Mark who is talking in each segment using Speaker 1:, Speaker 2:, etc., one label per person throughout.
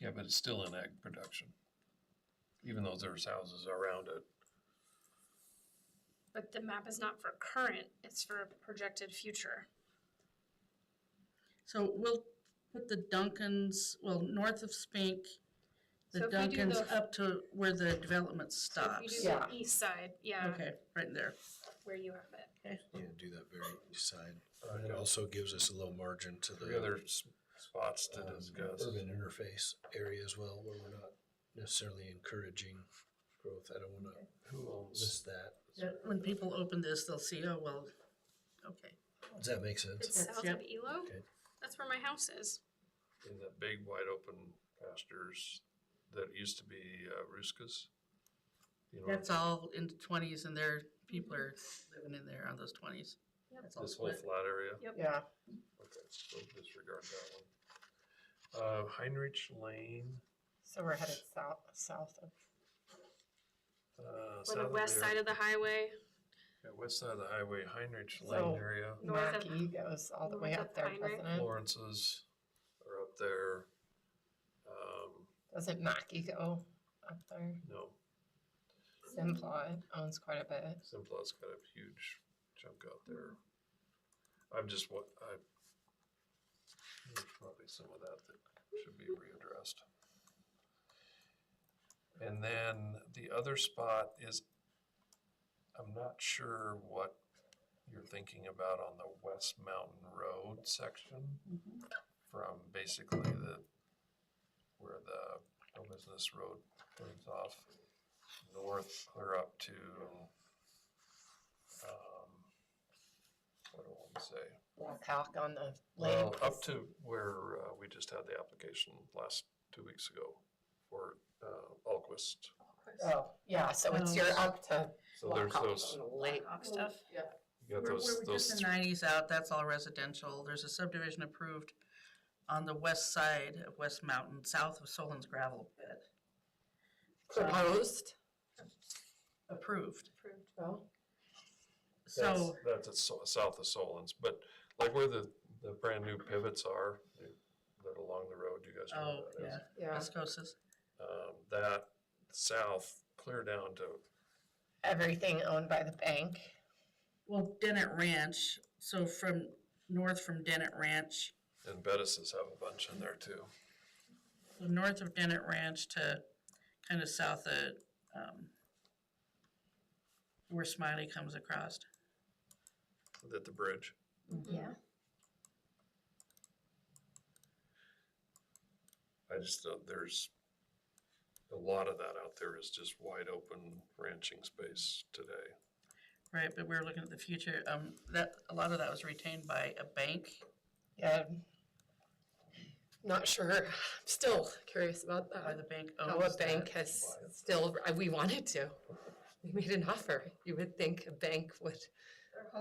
Speaker 1: Yeah, but it's still in ag production, even though there's houses around it.
Speaker 2: But the map is not for current, it's for projected future.
Speaker 3: So we'll put the Dunkins, well, north of Spink, the
Speaker 2: So if we do
Speaker 3: Dunkins
Speaker 2: the-
Speaker 3: up to where the development
Speaker 2: So if you
Speaker 3: stops.
Speaker 2: do the East side, yeah,
Speaker 3: Okay, right there.
Speaker 2: where you have it.
Speaker 4: Yeah, do that very east side.
Speaker 1: Uh,
Speaker 4: It also gives us a little margin to
Speaker 1: Three
Speaker 4: the
Speaker 1: other s- spots to
Speaker 4: um,
Speaker 1: discuss.
Speaker 4: urban interface area as well, where we're not necessarily encouraging growth. I don't wanna
Speaker 1: Who owns?
Speaker 4: miss that.
Speaker 3: Yeah, When people open this, they'll see, oh, well, okay.
Speaker 4: Does that make sense?
Speaker 2: It's
Speaker 3: That's-
Speaker 2: south
Speaker 3: yep.
Speaker 2: of Elo.
Speaker 4: Okay.
Speaker 2: That's where my house is.
Speaker 1: in that big wide open pastures that used to be uh, Ruskas. You know,
Speaker 3: That's all in the twenties and there, people are living in there on those twenties.
Speaker 2: Yep.
Speaker 3: That's all
Speaker 1: this whole
Speaker 3: split.
Speaker 1: flat area.
Speaker 3: Yeah,
Speaker 1: Okay, so disregard that one. Uh, Heinrich Lane,
Speaker 5: So we're headed south, south of,
Speaker 1: uh,
Speaker 2: Or
Speaker 1: south
Speaker 2: the
Speaker 1: of
Speaker 2: west
Speaker 1: there.
Speaker 2: side of the highway,
Speaker 1: Yeah, west side of the highway, Heinrich
Speaker 5: So-
Speaker 1: Lane area.
Speaker 2: North of-
Speaker 5: Markey goes all the way
Speaker 2: north
Speaker 5: up
Speaker 2: of
Speaker 5: there,
Speaker 2: Pine
Speaker 5: doesn't it?
Speaker 1: Lawrence's are up there. Um,
Speaker 5: Doesn't Mackey go up there?
Speaker 1: no,
Speaker 2: Mm-hmm.
Speaker 5: Simplot owns quite a bit.
Speaker 1: Simplot's got a huge chunk out there. I'm just what I. There's probably some of that that should be readdressed. And then the other spot is, I'm not sure what you're thinking about on the West Mountain Road section. From basically the, where the no business road turns off north clear up to um, what do I want to say?
Speaker 5: Walk on the lake.
Speaker 1: Well, Oh, up to where uh, we just had the application last two weeks ago for uh, Alquist.
Speaker 5: Oh, yeah, so it's your up to
Speaker 1: So
Speaker 5: walk
Speaker 1: there's
Speaker 5: off
Speaker 1: those,
Speaker 5: on the lake.
Speaker 2: Blackhawk stuff.
Speaker 1: you got
Speaker 3: We're,
Speaker 1: those,
Speaker 3: we're
Speaker 1: those,
Speaker 3: just in nineties out, that's all residential. There's a subdivision approved on the west side of West Mountain, south of Solon's gravel pit.
Speaker 5: Proposed.
Speaker 2: Approved.
Speaker 3: Approved.
Speaker 5: Oh,
Speaker 1: that's,
Speaker 3: So,
Speaker 1: that's at so- south of Solon's, but like where the, the brand new pivots are, that along the road, you guys know
Speaker 3: oh,
Speaker 1: where that is.
Speaker 3: yeah,
Speaker 5: yeah.
Speaker 3: Escosas.
Speaker 1: Um, That south, clear down to,
Speaker 5: Everything owned by the bank.
Speaker 3: Well, Dennett Ranch, so from, north from Dennett Ranch,
Speaker 1: and Bettis's have a bunch in there too.
Speaker 3: so north of Dennett Ranch to kind of south of, um, where Smiley comes across.
Speaker 1: At the bridge.
Speaker 2: Mm-hmm.
Speaker 5: Yeah.
Speaker 1: I just, don't- there's a lot of that out there is just wide open ranching space today.
Speaker 3: Right, but we're looking at the future, um, that, a lot of that was retained by a bank.
Speaker 5: Yeah. Not sure. I'm still curious about
Speaker 3: By
Speaker 5: that.
Speaker 3: the bank
Speaker 5: How Oh, a
Speaker 3: owns
Speaker 5: bank
Speaker 3: that.
Speaker 5: has still, we wanted to. We made an offer. You would think a bank would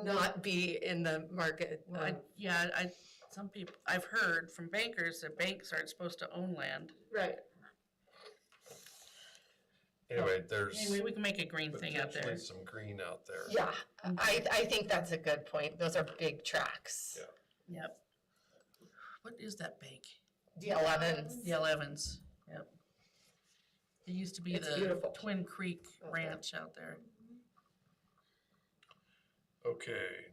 Speaker 5: not be in the market.
Speaker 3: Well, I,
Speaker 5: um,
Speaker 3: yeah, I, some people, I've heard from bankers that banks aren't supposed to own land.
Speaker 5: Right.
Speaker 1: Anyway, there's
Speaker 3: Anyway, we can make a green thing out
Speaker 1: potentially
Speaker 3: there.
Speaker 1: some green out there.
Speaker 5: Yeah, I, I think that's a good point. Those are big tracks.
Speaker 1: Yeah.
Speaker 3: Yep. What is that bank?
Speaker 5: The elevens.
Speaker 3: The Elevens, yep. It used to be
Speaker 5: It's
Speaker 3: the
Speaker 5: beautiful.
Speaker 3: Twin Creek
Speaker 5: Okay.
Speaker 3: Ranch out there.
Speaker 1: Okay.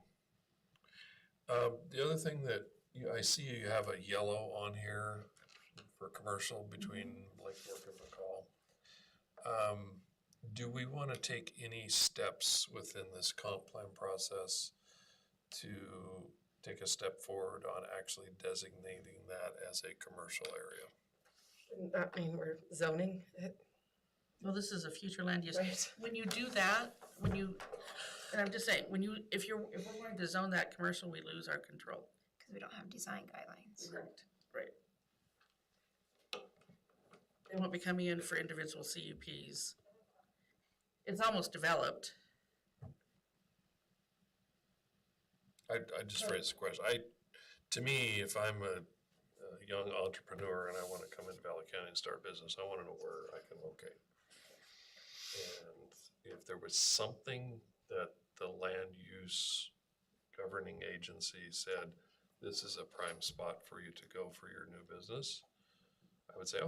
Speaker 1: Um, the other thing that, you, I see you have a yellow on here for commercial between Lake Fork and McCall. Um, do we want to take any steps within this comp plan process to take a step forward on actually designating that as a commercial area?
Speaker 5: Doesn't that mean we're zoning it,
Speaker 3: Well, this is a future land use.
Speaker 5: right?
Speaker 3: When you do that, when you, and I'm just saying, when you, if you're, if we're wanting to zone that commercial, we lose our control.
Speaker 6: Because we don't have design guidelines.
Speaker 3: Correct. Right. They won't be coming in for individual CUPs. It's almost developed.
Speaker 1: I, I just raised a question. I, to me, if I'm a, a young entrepreneur and I want to come into Valley County and start a business, I want to know where I can locate. And if there was something that the land use governing agency said, this is a prime spot for you to go for your new business, I would say,